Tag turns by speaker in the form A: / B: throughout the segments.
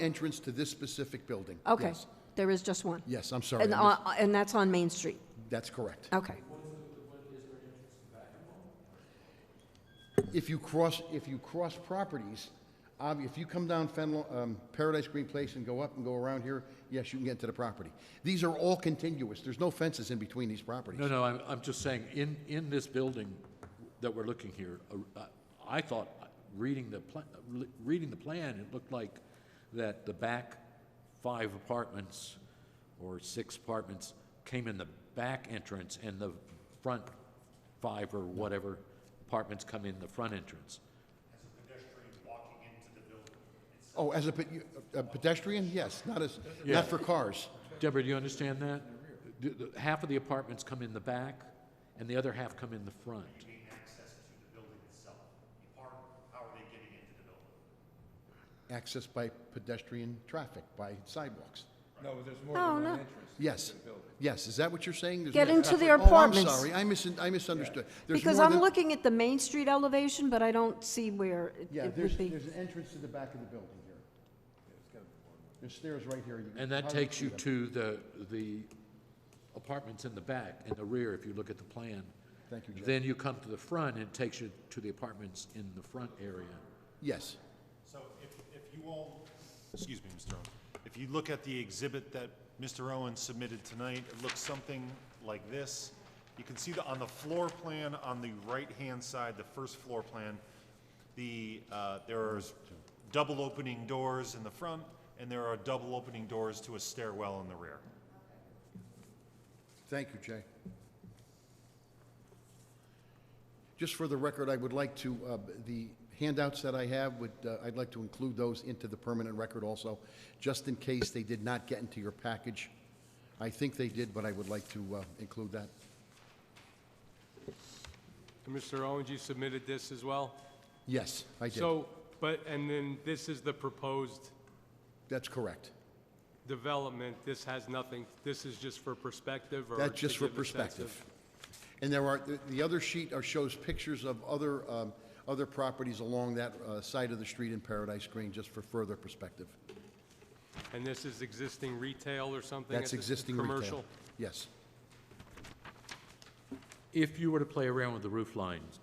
A: entrance to this specific building.
B: Okay,
A: Yes.
B: there is just one?
A: Yes, I'm sorry.
B: And,
A: I missed-
B: on- and that's on Main Street?
A: That's correct.
B: Okay,
A: If you cross, if you cross properties, ob- if you come down Fenlo- um, Paradise Green Place and go up and go around here, yes, you can get to the property. These are all contiguous. There's no fences in between these properties.
C: No, no, I'm, I'm just saying, in, in this building that we're looking here, uh, I thought, reading the, pla- uh, reading the plan, it looked like that the back five apartments or six apartments came in the back entrance and the front five or whatever apartments come in the front entrance.
A: Oh, as a pe- you- a pedestrian, yes, not as,
C: Yeah.
A: not for cars.
C: Deborah, do you understand that? The- the- Half of the apartments come in the back and the other half come in the front.
A: Access by pedestrian traffic, by sidewalks.
D: No, there's more
B: No,
D: than
B: Oh, no.
D: one entrance.
A: Yes, yes, is that what you're saying? There's
B: Get
A: more-
B: into their apartments.
A: Oh, I'm sorry, I misun- I misunderstood. There's
B: because
A: more
B: I'm
A: than-
B: looking at the Main Street elevation, but I don't see where it-
A: Yeah,
B: it
A: there's,
B: would be.
A: there's an entrance to the back of the building here. There's stairs right here. You can
C: And that
A: probably
C: takes
A: see
C: you
A: them.
C: to the, the apartments in the back, in the rear, if you look at the plan.
A: Thank you, Jeff.
C: Then you come to the front and it takes you to the apartments in the front area.
A: Yes,
E: So if, if you all, excuse me, Mr. Owen, if you look at the exhibit that Mr. Owen submitted tonight, it looks something like this. You can see that on the floor plan, on the right-hand side, the first floor plan, the, uh, there's double opening doors in the front, and there are double opening doors to a stairwell in the rear.
A: thank you, Jay. Just for the record, I would like to, uh, the handouts that I have, would, uh, I'd like to include those into the permanent record also, just in case they did not get into your package. I think they did, but I would like to uh, include that.
D: And Mr. Owens, you submitted this as well?
A: Yes, I did.
D: So, but, and then this is the proposed
A: That's correct.
D: development, this has nothing, this is just for perspective or?
A: That's
D: to
A: just for
D: give a sense of-
A: perspective. And there are, the- the other sheet are- shows pictures of other, um, other properties along that uh, side of the street in Paradise Green, just for further perspective.
D: And this is existing retail or something?
A: That's
D: at this-
A: existing retail.
D: Commercial?
A: Yes.
C: If you were to play around with the roof lines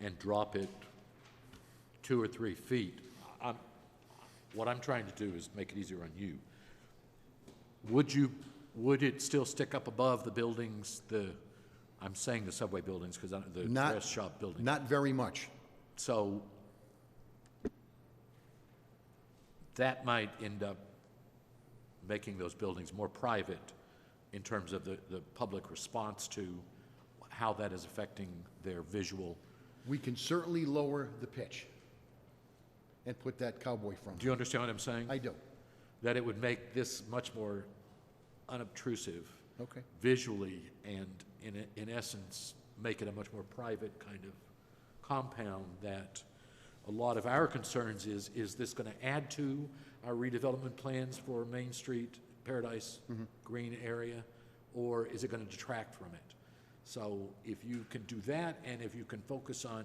C: and drop it two or three feet, I'm, what I'm trying to do is make it easier on you. Would you, would it still stick up above the buildings, the, I'm saying the subway buildings, because the
A: Not-
C: dress shop buildings?
A: Not very much.
C: So that might end up making those buildings more private in terms of the, the public response to how that is affecting their visual.
A: We can certainly lower the pitch and put that cowboy front.
C: Do you understand what I'm saying?
A: I do.
C: That it would make this much more unobtrusive
A: Okay.
C: visually and in, e- in essence, make it a much more private kind of compound that a lot of our concerns is, is this going to add to our redevelopment plans for Main Street, Paradise Green area? Or is it going to detract from it? So if you can do that and if you can focus on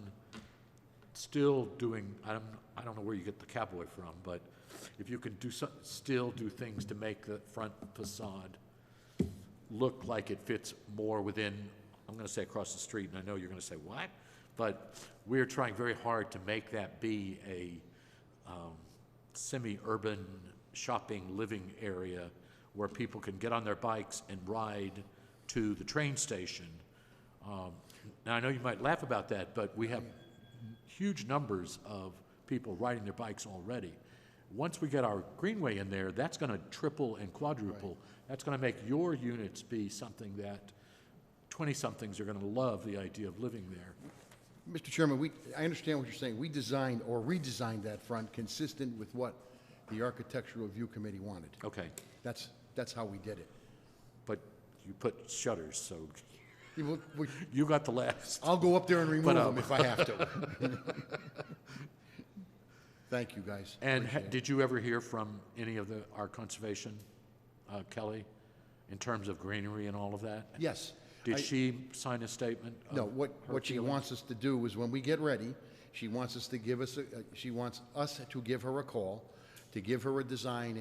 C: still doing, I don't, I don't know where you get the cowboy from, but if you can do some, still do things to make the front facade look like it fits more within, I'm gonna say across the street, and I know you're gonna say, what? But we're trying very hard to make that be a um, semi-urban shopping, living area where people can get on their bikes and ride to the train station. Um, Now, I know you might laugh about that, but we have huge numbers of people riding their bikes already. Once we get our greenway in there, that's going to triple and quadruple. That's going to make your units be something that 20-somethings are going to love the idea of living there.
A: Mr. Chairman, we, I understand what you're saying. We designed or redesigned that front consistent with what the Architectural Review Committee wanted.
C: Okay,
A: That's, that's how we did it.
C: but you put shutters, so
A: Yeah, well, we-
C: you got the last.
A: I'll go up there and remove
C: But, um,
A: them if I have to. Thank you, guys.
C: And ha- did you ever hear from any of the, our conservation, uh, Kelly, in terms of greenery and all of that?
A: Yes. I-
C: Did she sign a statement? of
A: No, what,
C: her
A: what she
C: feelings?
A: wants us to do is when we get ready, she wants us to give us, a- uh, she wants us to give her a call to give her a design and